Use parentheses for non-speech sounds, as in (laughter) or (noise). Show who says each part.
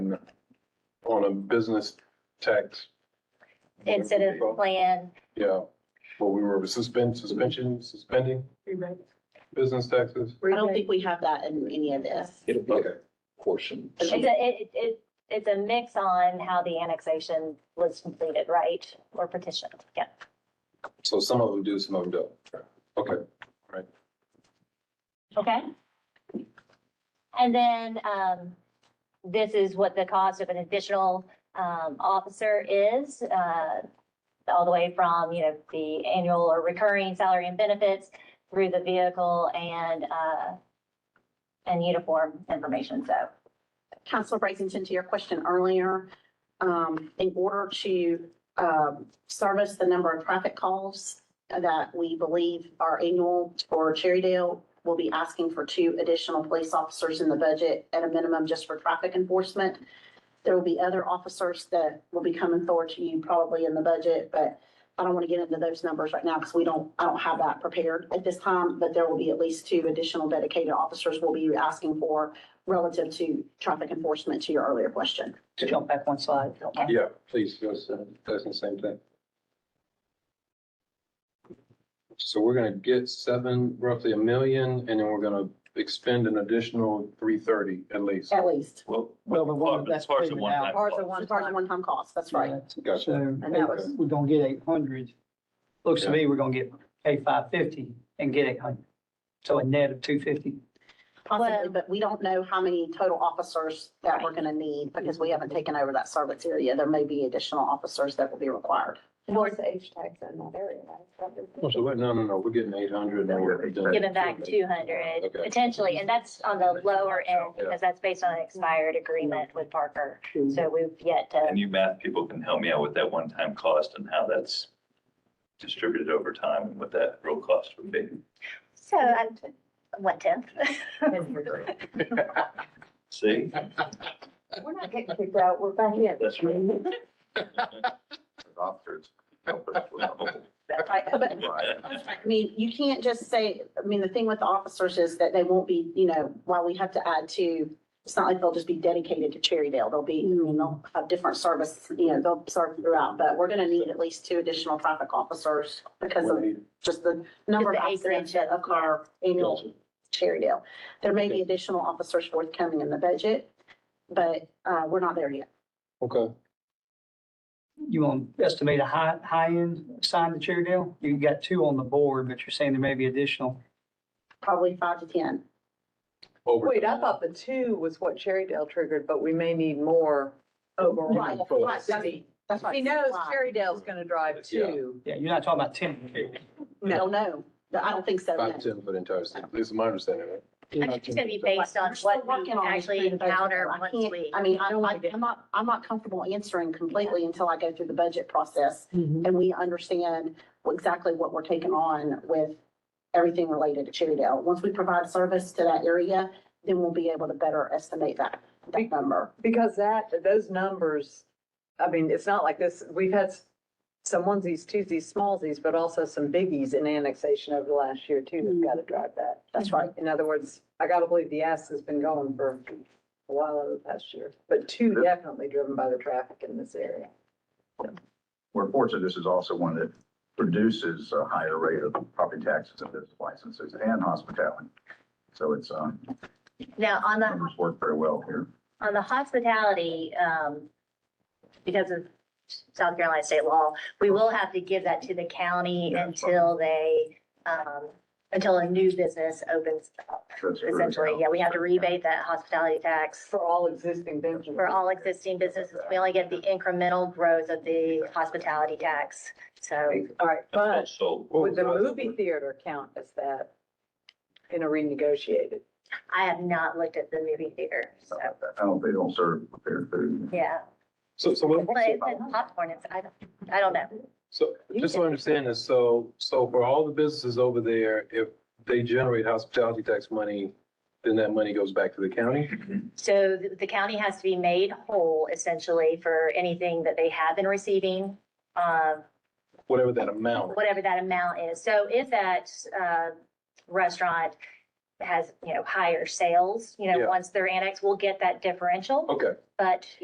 Speaker 1: on a business tax.
Speaker 2: incident plan.
Speaker 1: Yeah, well, we were suspend, suspension, suspending business taxes.
Speaker 3: I don't think we have that in any of this.
Speaker 4: It'll be
Speaker 1: Okay.
Speaker 4: a portion.
Speaker 2: It's a, it, it- it, it's a mix on how the annexation was completed, right? Or petitioned, yeah.
Speaker 1: So some of them do, some of them don't. Okay,
Speaker 2: Okay. And then, um, this is what the cost of an additional, um, officer is, uh, all the way from, you know, the annual or recurring salary and benefits through the vehicle and, uh, and uniform information, so.
Speaker 3: Counselor Brazington, to your question earlier, um, in order to, um, service the number of traffic calls that we believe are annual for Cherrydale, we'll be asking for two additional police officers in the budget at a minimum just for traffic enforcement. There will be other officers that will be coming forward to you probably in the budget, but I don't want to get into those numbers right now because we don't, I don't have that prepared at this time, but there will be at least two additional dedicated officers we'll be asking for relative to traffic enforcement to your earlier question.
Speaker 5: To jump back one slide. if you don't mind.
Speaker 1: yeah, please, that's, uh, that's the same thing. So we're gonna get seven, roughly a million, and then we're gonna expend an additional three thirty at least.
Speaker 3: At least.
Speaker 4: Well,
Speaker 5: Well, the one that's
Speaker 4: Parts of
Speaker 5: taken
Speaker 4: one
Speaker 5: out.
Speaker 4: time.
Speaker 3: Ours are one, ours are one-time costs, that's right.
Speaker 1: Gotcha.
Speaker 5: So
Speaker 3: that was-
Speaker 5: eight- we're gonna get eight hundred. Looks to me we're gonna get pay five fifty and get eight hundred. So a net of two fifty.
Speaker 3: Possibly,
Speaker 2: Well-
Speaker 3: but we don't know how many total officers that we're gonna need because we haven't taken over that service area. There may be additional officers that will be required.
Speaker 6: Towards the H tags in that area, right?
Speaker 1: So, wait, no, no, no, we're getting eight hundred and we're.
Speaker 2: Giving back two hundred
Speaker 1: Okay.
Speaker 2: potentially, and that's on the lower end because that's based on an expired agreement with Parker. So we've yet
Speaker 7: And
Speaker 2: to,
Speaker 7: you math people can help me out with that one-time cost and how that's distributed over time and what that real cost would be.
Speaker 2: so i one (laughs) tenth.
Speaker 7: See?
Speaker 6: We're not getting kicked out, we're back in.
Speaker 7: That's
Speaker 2: (laughs)
Speaker 7: right.
Speaker 3: That's right. But I mean, you can't just say, I mean, the thing with the officers is that they won't be, you know, while we have to add to, it's not like they'll just be dedicated to Cherrydale. They'll be, you know, they'll have different service, you know, they'll serve throughout, but we're gonna need at least two additional traffic officers because of just the number of
Speaker 2: Just the
Speaker 3: accidents that occur annual Cherrydale. There may be additional officers forthcoming in the budget, but, uh, we're not there yet.
Speaker 1: Okay,
Speaker 5: You want to estimate a high, high end sign to Cherrydale? You got two on the board, but you're saying there may be additional.
Speaker 3: Probably five to ten.
Speaker 1: over.
Speaker 6: Wait, I thought the two was what Cherrydale triggered, but we may need more
Speaker 3: Right,
Speaker 6: overall.
Speaker 3: right, that's- That's right.
Speaker 6: He knows
Speaker 3: Why?
Speaker 6: Cherrydale's gonna drive two.
Speaker 5: Yeah, you're not talking about ten.
Speaker 3: I don't know. I don't think so. no.
Speaker 1: Five, ten for the entire city, this is my understanding, right?
Speaker 2: I think it's gonna be based on
Speaker 3: We're still
Speaker 2: what we
Speaker 3: working on this
Speaker 2: actually
Speaker 3: thing, but
Speaker 2: encounter
Speaker 3: I
Speaker 2: once
Speaker 3: can't-
Speaker 2: we.
Speaker 3: I mean, I don't, I- I'm not, I'm not comfortable answering completely until I go through the budget process and we understand exactly what we're taking on with everything related to Cherrydale. Once we provide service to that area, then we'll be able to better estimate that, that number.
Speaker 6: Because that, those numbers, I mean, it's not like this, we've had s- some onesies, twosies, smallsies, but also some biggies in annexation over the last year too, that's gotta drive that.
Speaker 3: That's right.
Speaker 6: In other words, I gotta believe the ass has been going for a while over the past year, but two definitely driven by the traffic in this area.
Speaker 8: we're fortunate this is also one that produces a higher rate of property taxes and business licenses and hospitality. So it's, um,
Speaker 2: Now, on the,
Speaker 8: numbers work very well here.
Speaker 2: on the hospitality, um, because of South Carolina state law, we will have to give that to the county
Speaker 8: Yeah, that's fine.
Speaker 2: until they, um, until a new business opens up.
Speaker 8: That's really
Speaker 2: Essentially,
Speaker 8: how-
Speaker 2: yeah, we have to rebate that hospitality tax
Speaker 6: For all existing businesses.
Speaker 2: for all existing businesses. We only get the incremental growth of the hospitality tax. So
Speaker 6: All right, but
Speaker 7: So
Speaker 1: Oh,
Speaker 6: would the movie theater count as that in a renegotiated?
Speaker 2: I have not looked at the movie theater, so,
Speaker 8: I don't, they don't serve
Speaker 2: (laughs)
Speaker 8: prepared food.
Speaker 2: yeah.
Speaker 1: So, so what,
Speaker 2: But it's popcorn, it's, I don't, I don't know.
Speaker 1: so, just to understand this, so, so for all the businesses over there, if they generate hospitality tax money, then that money goes back to the county?
Speaker 2: So the- the county has to be made whole essentially for anything that they have been receiving, uh,
Speaker 1: whatever that amount.
Speaker 2: whatever that amount is. So if that uh, restaurant has, you know, higher sales, you know,
Speaker 1: Yeah.
Speaker 2: once they're annexed, we'll get that differential.
Speaker 1: Okay.
Speaker 2: But